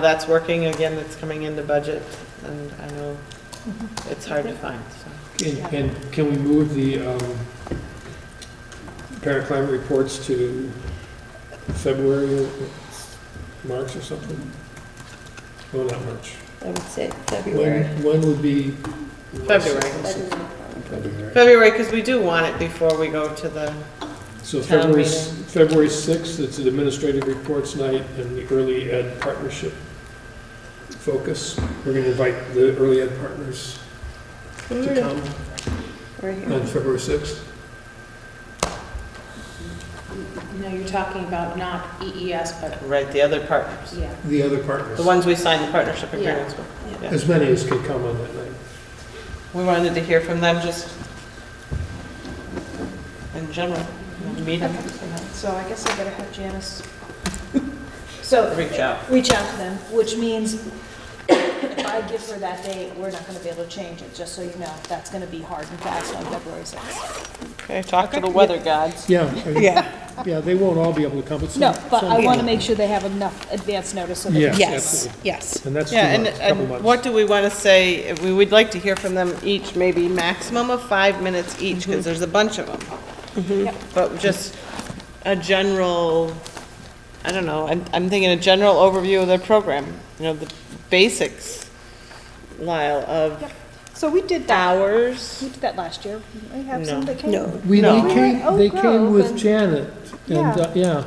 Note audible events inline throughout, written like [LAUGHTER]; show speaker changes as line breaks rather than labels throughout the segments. that's working again, that's coming into budget, and I know
Mm-hmm.
it's hard to find, so.
And, and can we move the um, paraclimate reports to February, or March or something? No, not March.
I would say
When,
February.
when would be?
February.
February.
February, because we do want it before we go to the,
So
Town
February, s-
meeting.
February 6th, it's an administrative reports night and the early ed partnership focus. We're going to invite the early ed partners to
Ooh,
Mm.
come
Right
on
here.
February 6th.
No, you're talking about not
E
EES, but,
right, the other partners.
yeah.
The other partners,
The ones we signed the partnership agreements with. yeah.
as many as can come on that night.
We wanted to hear from them just in general, you know, meet them,
So I guess I better have Janice. So,
reach out.
reach out to them, which means if I give her that date, we're not gonna be able to change it, just so you know. That's gonna be hard and fast on February sixth.
Okay, talk to the weather gods.
Yeah,
Yeah.
yeah, they won't all be able to come, but some.
No, but I
some
wanna
will.
make sure they have enough advance notice so
Yeah.
that.
Yes, yes.
And that's two
Yeah, and,
months, couple
and what
months.
do we want to say, we would like to hear from them each, maybe maximum of five minutes each, because there's a bunch of them.
Yep.
But just a general, I don't know, I'm, I'm thinking a general overview of their program, you know, the basics, Lyle, of
So we did that, we
hours.
did that last year. We have
No.
some that came.
No,
We,
No.
they
Oak
came, they came
Grove
with
and-
Janet, and, uh, yeah,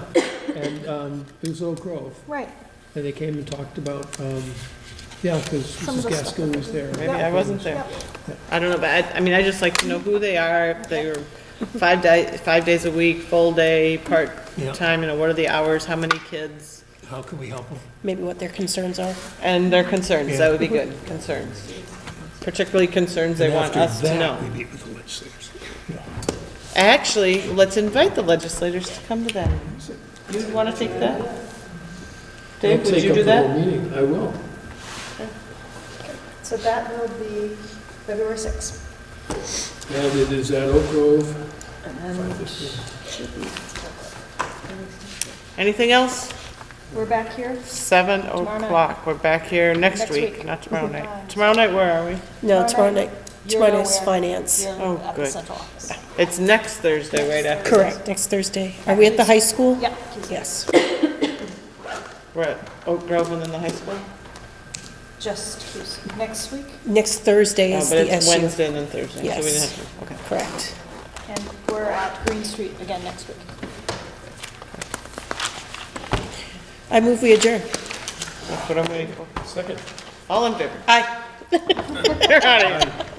and, um, it was Oak Grove,
Right,
and they came and talked about, um, yeah, because
Some of
Mrs.
the stuff
Gaskin
that
was
we-
there.
Maybe I wasn't there.
Yeah.
I don't know, but I, I mean, I just like to know who they are, if they were five di, five days a week, full day, part-time, you know, what are the hours, how many kids?
How can we help them?
maybe what their concerns are.
And their concerns, that
Yeah.
would be good, concerns. Particularly concerns they want us to know.
meet with the legislators.
Actually, let's invite the legislators to come to that. You want to take that? Dave, would you do that?
I will.
so that will be February sixth.
And it is at Oak Grove.
Anything else?
We're back here.
Seven
Tomorrow night.
o'clock, we're back here next
Next
week,
week.
not tomorrow night.
Bye.
Tomorrow night, where are we?
No, tomorrow
Tomorrow
night,
night.
tomorrow
You're
night's
nowhere.
finance.
You're
Oh,
at the
good.
central office.
It's next Thursday, right after.
Correct, next Thursday. Are we at the high school?
Yeah.
Yes.
We're at Oak Grove and then the high school?
Just Tuesday. next week,
Next Thursday
No,
is
Oh, but
the
it's
SU.
Wednesday and then Thursday, so we
Yes.
didn't have to, okay.
Correct.
and we're at Green Street again next week.
I move we adjourn.
That's what I'm waiting for.
Second.
All in favor? [LAUGHS]
Aye.
You're out of here.